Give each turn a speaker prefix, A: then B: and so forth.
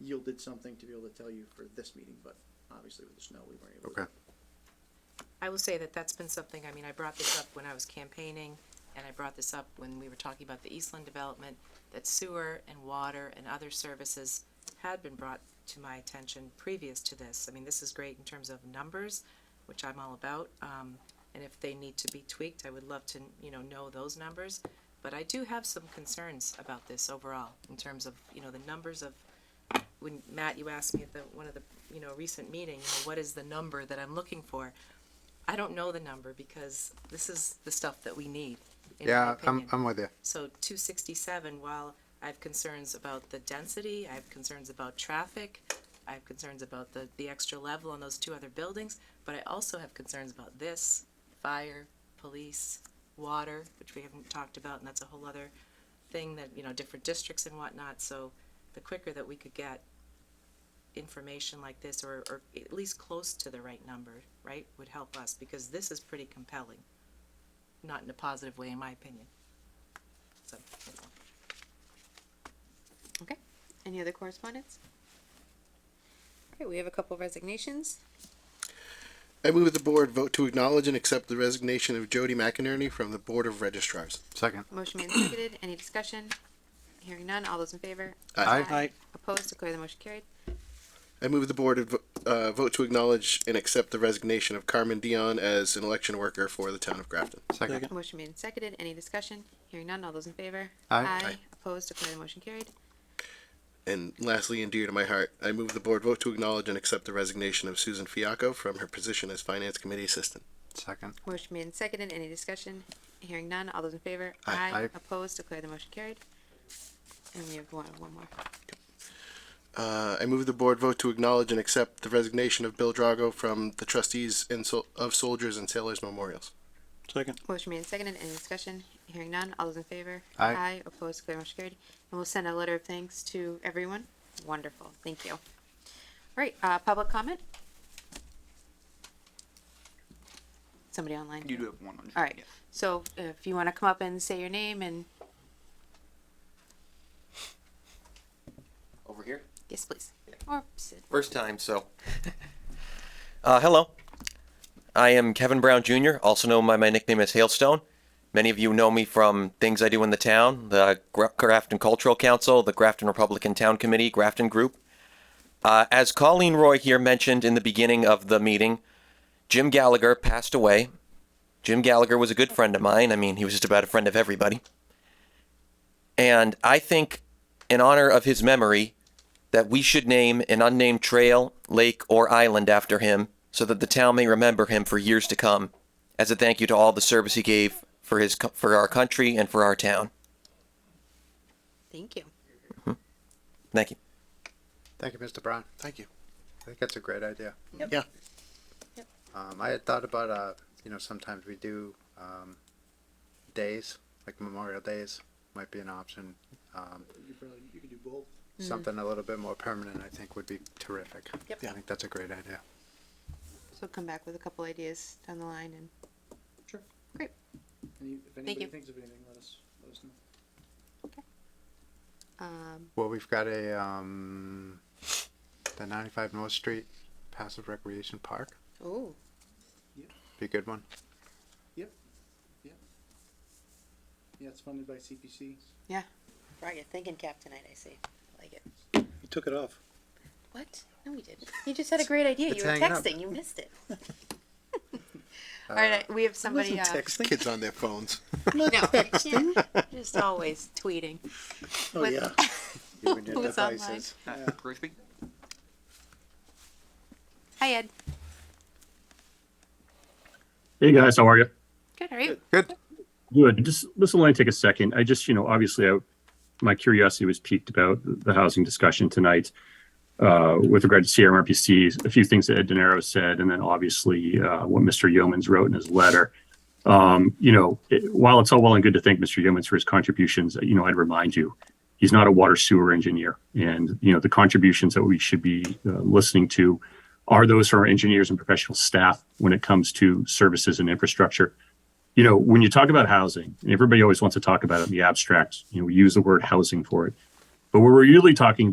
A: yielded something to be able to tell you for this meeting, but obviously with the snow, we weren't able to.
B: Okay.
C: I will say that that's been something, I mean, I brought this up when I was campaigning, and I brought this up when we were talking about the Eastland development, that sewer and water and other services had been brought to my attention previous to this. I mean, this is great in terms of numbers, which I'm all about, um, and if they need to be tweaked, I would love to, you know, know those numbers. But I do have some concerns about this overall, in terms of, you know, the numbers of when Matt, you asked me at the, one of the, you know, recent meeting, you know, what is the number that I'm looking for? I don't know the number because this is the stuff that we need, in my
B: Yeah, I'm,
C: opinion.
B: I'm with you.
C: So two sixty-seven, while I have concerns about the density, I have concerns about traffic, I have concerns about the, the extra level on those two other buildings, but I also have concerns about this, fire, police, water, which we haven't talked about, and that's a whole other thing that, you know, different districts and whatnot, so the quicker that we could get information like this, or, or at least close to the right number, right, would help us, because this is pretty compelling. Not in a positive way, in my opinion. So, that's all.
D: Okay, any other correspondence? Okay, we have a couple resignations.
E: I move that the board vote to acknowledge and accept the resignation of Jody McInerney from the Board of Registrars.
B: Second.
D: Motion made and seconded, any discussion? Hearing none, all those in favor?
E: Aye.
D: Opposed, declare the motion carried.
E: I move the board adv- uh, vote to acknowledge and accept the resignation of Carmen Dion as an election worker for the town of Grafton.
B: Second.
D: Motion made and seconded, any discussion? Hearing none, all those in favor?
B: Aye.
E: Aye.
D: Opposed, declare the motion carried.
E: And lastly, and dear to my heart, I move the board vote to acknowledge and accept the resignation of Susan Fiacco from her position as Finance Committee Assistant.
B: Second.
D: Motion made and seconded, any discussion? Hearing none, all those in favor?
E: Aye.
B: Aye.
D: Opposed, declare the motion carried. And we have one, one more.
E: Uh, I move the board vote to acknowledge and accept the resignation of Bill Drago from the Trustees and Sol- of Soldiers and Sailors Memorials.
F: Second.
D: Motion made and seconded, any discussion? Hearing none, all those in favor?
B: Aye.
D: opposed, declare motion carried. And we'll send a letter of thanks to everyone. Wonderful, thank you. All right, uh, public comment? Somebody online?
G: You do have one on.
D: All right, so if you wanna come up and say your name and,
H: over here.
D: yes, please. Or sit.
H: First time, so. uh, hello. I am Kevin Brown Jr., also known by my nickname as Hailstone. Many of you know me from things I do in the town the Gra- Grafton Cultural Council, the Grafton Republican Town Committee, Grafton Group. Uh, as Colleen Roy here mentioned in the beginning of the meeting, Jim Gallagher passed away. Jim Gallagher was a good friend of mine. I mean, he was just about a friend of everybody. And I think, in honor of his memory, that we should name an unnamed trail, lake, or island after him so that the town may remember him for years to come as a thank you to all the service he gave for his co- for our country and for our town.
D: Thank you.
H: Thank you.
B: Thank you, Mr. Brown.
E: Thank you.
B: I think that's a great idea.
E: Yeah.
B: Um, I had thought about, uh, you know, sometimes we do, um, days, like Memorial Days might be an option. Um,
A: You probably, you could do both.
C: Mm-hmm.
B: something a little bit more permanent, I think would be terrific.
D: Yep.
B: I think that's a great idea.
D: So come back with a couple ideas down the line and,
A: Sure.
D: Great.
A: Any, if anybody
D: you.
A: thinks of anything, let us, let us know.
D: um,
B: Well, we've got a, um, the ninety-five North Street Passive Recreation Park,
D: oh,
B: be a good one.
A: Yeah, it's funded by CPC.
D: brought your thinking cap tonight, I see. I Like it.
F: You took it off.
D: What? No, we didn't. You just had a great idea.
B: It's
D: You were
B: hanging up.
D: texting. You missed it. All right, I- we have somebody. Uh,
E: Kids on their phones.
D: no, yeah, just always tweeting.
E: Oh,
D: What-
E: yeah.
B: Even your
D: Who's online?
B: devices.
G: Uh, Grigsby?
D: Hi, Ed.
I: Hey guys, how are you?
D: Good. How are you?
B: Good,
I: Good. Just this will only take a second. I just, you know, obviously, I, my curiosity was piqued about the housing discussion tonight uh, with regard to CMRPC. A few things that Ed DeNiro said, and then obviously uh, what Mr. Yeomans wrote in his letter. Um, you know, it, while it's all well and good to thank Mr. Yeomans for his contributions, you know, I'd remind you, he's not a water sewer engineer, and you know the contributions that we should be uh, listening to are those from our engineers and professional staff when it comes to services and infrastructure you know, when you talk about housing, and everybody always wants to talk about it in the abstract, you know, we use the word housing for it. But what we're really talking